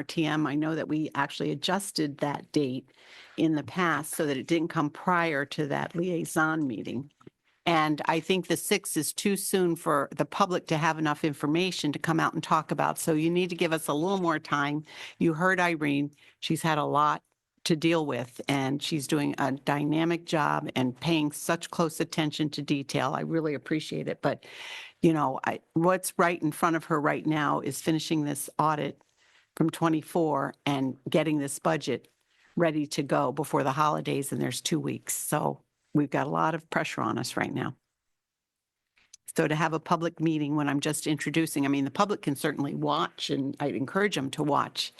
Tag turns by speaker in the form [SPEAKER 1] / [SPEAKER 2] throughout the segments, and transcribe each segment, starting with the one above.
[SPEAKER 1] RTM, I know that we actually adjusted that date in the past so that it didn't come prior to that liaison meeting. And I think the six is too soon for the public to have enough information to come out and talk about. So you need to give us a little more time. You heard Irene, she's had a lot to deal with and she's doing a dynamic job and paying such close attention to detail. I really appreciate it. But, you know, I, what's right in front of her right now is finishing this audit from 24 and getting this budget ready to go before the holidays and there's two weeks. So we've got a lot of pressure on us right now. So to have a public meeting when I'm just introducing, I mean, the public can certainly watch and I encourage them to watch,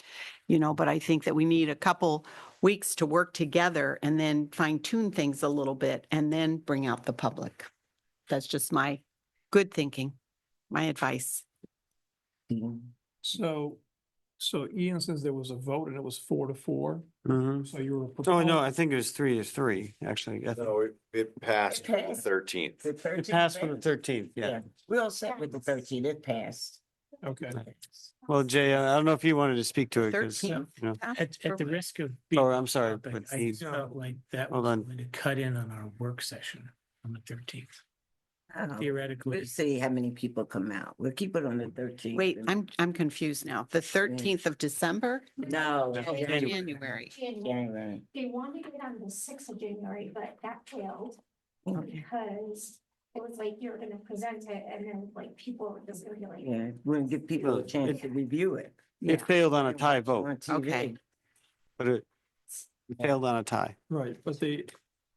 [SPEAKER 1] you know, but I think that we need a couple weeks to work together and then fine tune things a little bit and then bring out the public. That's just my good thinking, my advice.
[SPEAKER 2] So, so Ian says there was a vote and it was four to four,
[SPEAKER 3] Mhm.
[SPEAKER 2] so you were.
[SPEAKER 3] Oh, no,
[SPEAKER 2] proposing-
[SPEAKER 3] I think it was three to three, actually. I think
[SPEAKER 4] No, it, it passed
[SPEAKER 5] It passed.
[SPEAKER 4] thirteenth.
[SPEAKER 5] The
[SPEAKER 3] It
[SPEAKER 5] 13th
[SPEAKER 3] passed for the
[SPEAKER 5] passed.
[SPEAKER 3] thirteenth, yeah.
[SPEAKER 5] We all set with the thirteen, it passed.
[SPEAKER 2] Okay,
[SPEAKER 3] Well, Jay, I I don't know if you wanted to speak to it, because, you
[SPEAKER 1] 13th.
[SPEAKER 3] know,
[SPEAKER 6] At, at the risk of. being
[SPEAKER 3] oh, I'm sorry.
[SPEAKER 6] topic,
[SPEAKER 3] but
[SPEAKER 6] I
[SPEAKER 3] he-
[SPEAKER 6] just felt like that
[SPEAKER 3] Hold
[SPEAKER 6] was
[SPEAKER 3] on.
[SPEAKER 6] going to cut in on our work session on the thirteenth.
[SPEAKER 3] Oh.
[SPEAKER 6] Theoretically,
[SPEAKER 5] We'll Um, see how many people come out. We'll keep it on the thirteenth.
[SPEAKER 1] Wait, I'm, I'm confused now. The 13th of December?
[SPEAKER 5] No.
[SPEAKER 1] Oh, January.
[SPEAKER 7] January.
[SPEAKER 5] January.
[SPEAKER 7] They wanted it on the sixth of January, but that failed
[SPEAKER 1] Okay.
[SPEAKER 7] because it was like you were gonna present it and then like people were just gonna be like,
[SPEAKER 5] Yeah, we'll give people
[SPEAKER 3] Well,
[SPEAKER 5] a chance to review it.
[SPEAKER 3] It failed on a tie vote,
[SPEAKER 5] On TV.
[SPEAKER 1] Okay.
[SPEAKER 3] but it it failed on a tie.
[SPEAKER 2] right, but the,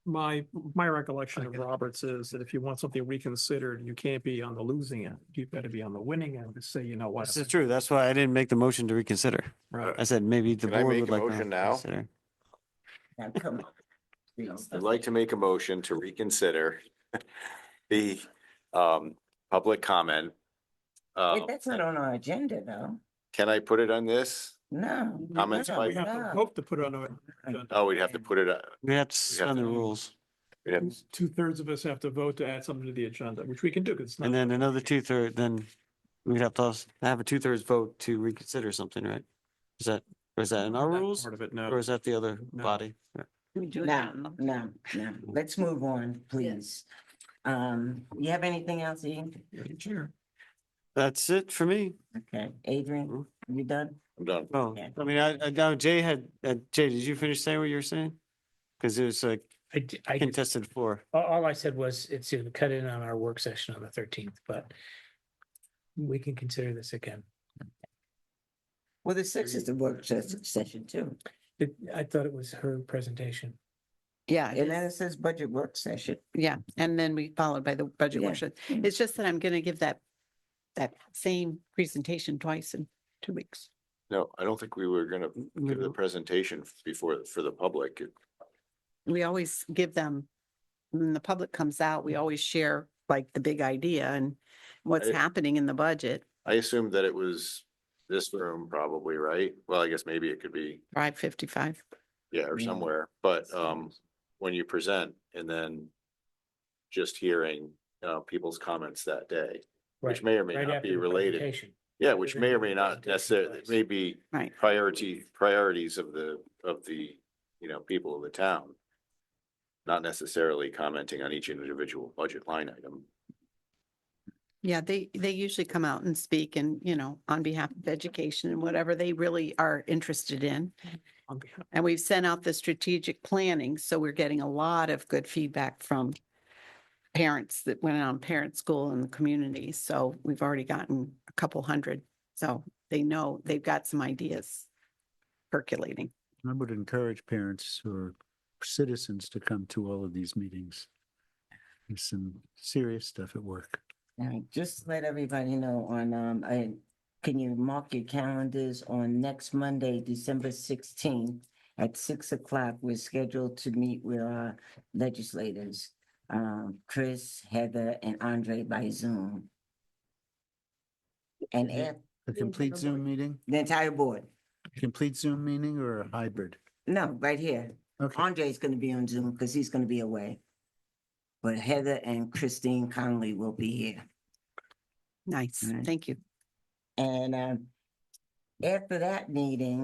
[SPEAKER 2] my, my recollection of Roberts is that if you want something reconsidered, you can't be on the losing end. You better be on the winning end to say, you know what?
[SPEAKER 3] This is true. That's why I didn't make the motion to reconsider.
[SPEAKER 2] Right.
[SPEAKER 3] I said, maybe the
[SPEAKER 4] Can I
[SPEAKER 3] board
[SPEAKER 4] make
[SPEAKER 3] would
[SPEAKER 4] a
[SPEAKER 3] like
[SPEAKER 4] motion
[SPEAKER 3] to
[SPEAKER 4] now?
[SPEAKER 3] consider.
[SPEAKER 5] Now, come on. Please.
[SPEAKER 4] I'd like to make a motion to reconsider the um public comment. Uh,
[SPEAKER 5] Wait, that's not on our agenda, though.
[SPEAKER 4] can I put it on this?
[SPEAKER 5] No.
[SPEAKER 4] Comments
[SPEAKER 5] no,
[SPEAKER 4] by-
[SPEAKER 2] We have to
[SPEAKER 5] no.
[SPEAKER 6] Ah.
[SPEAKER 2] hope to put it on our agenda.
[SPEAKER 4] Oh, we'd have to put it, uh,
[SPEAKER 3] We have to suspend the rules.
[SPEAKER 4] we'd have-
[SPEAKER 2] Two thirds of us have to vote to add something to the agenda, which we can do. 'cause it's not-
[SPEAKER 3] And then another two third, then we'd have to als- have a two thirds vote to reconsider something, right? Is that, or is that in our
[SPEAKER 2] not
[SPEAKER 3] rules
[SPEAKER 2] Part of it,
[SPEAKER 3] or
[SPEAKER 2] no.
[SPEAKER 3] is that the other
[SPEAKER 2] No.
[SPEAKER 3] body?
[SPEAKER 5] No, no, no. Let's move on, please. Um, you have anything else, Ian?
[SPEAKER 2] Sure.
[SPEAKER 3] That's it for me.
[SPEAKER 5] Okay, Adrian, you done?
[SPEAKER 4] I'm done.
[SPEAKER 3] Oh,
[SPEAKER 5] Yeah.
[SPEAKER 3] I mean, I, I know Jay had, uh, Jay, did you finish saying what you were saying? Cause it was like
[SPEAKER 6] I, d- I, just-
[SPEAKER 3] contested floor.
[SPEAKER 6] all, all I said was it's going to cut in on our work session on the thirteenth, but we can consider this again.
[SPEAKER 5] Well, the sixth is the work ses- session too.
[SPEAKER 6] It- I thought it was her presentation.
[SPEAKER 1] Yeah. it is.
[SPEAKER 5] And then it says budget work session.
[SPEAKER 1] Yeah, and then we followed by the budget
[SPEAKER 5] Yeah.
[SPEAKER 1] workshop.
[SPEAKER 5] Mm.
[SPEAKER 1] It's just that I'm going to give that, that same presentation twice in two weeks.
[SPEAKER 4] No, I don't think we were gonna give the presentation before, for the public.
[SPEAKER 1] We always give them, when the public comes out, we always share like the big idea and what's
[SPEAKER 4] I-
[SPEAKER 1] happening in the budget.
[SPEAKER 4] I assumed that it was this room probably, right? Well, I guess maybe it could be,
[SPEAKER 1] Five fifty-five.
[SPEAKER 4] yeah, or
[SPEAKER 5] Yeah.
[SPEAKER 4] somewhere, but um, when you present and then just hearing uh people's comments that day, which
[SPEAKER 6] Right,
[SPEAKER 4] may or may
[SPEAKER 6] right
[SPEAKER 4] not
[SPEAKER 6] after
[SPEAKER 4] be
[SPEAKER 6] the
[SPEAKER 4] related.
[SPEAKER 6] presentation.
[SPEAKER 4] Yeah, which may or may not
[SPEAKER 6] Presentation
[SPEAKER 4] necessarily,
[SPEAKER 6] place.
[SPEAKER 4] maybe
[SPEAKER 1] Right.
[SPEAKER 4] priority, priorities of the, of the, you know, people of the town. Not necessarily commenting on each individual budget line item.
[SPEAKER 1] Yeah, they, they usually come out and speak and, you know, on behalf of education and whatever they really are interested in.
[SPEAKER 2] On behalf-
[SPEAKER 1] And we've sent out the strategic planning, so we're getting a lot of good feedback from parents that went out on parent school and the community. So we've already gotten a couple hundred. So they know they've got some ideas percolating.
[SPEAKER 8] I would encourage parents or citizens to come to all of these meetings. There's some serious stuff at work.
[SPEAKER 5] All right, just to let everybody know on, um, I, can you mark your calendars on next Monday, December sixteenth? At six o'clock, we're scheduled to meet with our legislators, um, Chris, Heather, and Andre by Zoom. And at
[SPEAKER 8] A
[SPEAKER 7] Yeah,
[SPEAKER 8] complete
[SPEAKER 7] never
[SPEAKER 8] Zoom
[SPEAKER 7] mind.
[SPEAKER 8] meeting,
[SPEAKER 5] the entire board,
[SPEAKER 8] complete Zoom meeting or a hybrid?
[SPEAKER 5] no, right here.
[SPEAKER 8] Okay,
[SPEAKER 5] Andre's gonna be on Zoom because he's gonna be away. But Heather and Christine Conley will be here.
[SPEAKER 1] Nice.
[SPEAKER 5] Right.
[SPEAKER 1] Thank you.
[SPEAKER 5] And um, after that meeting,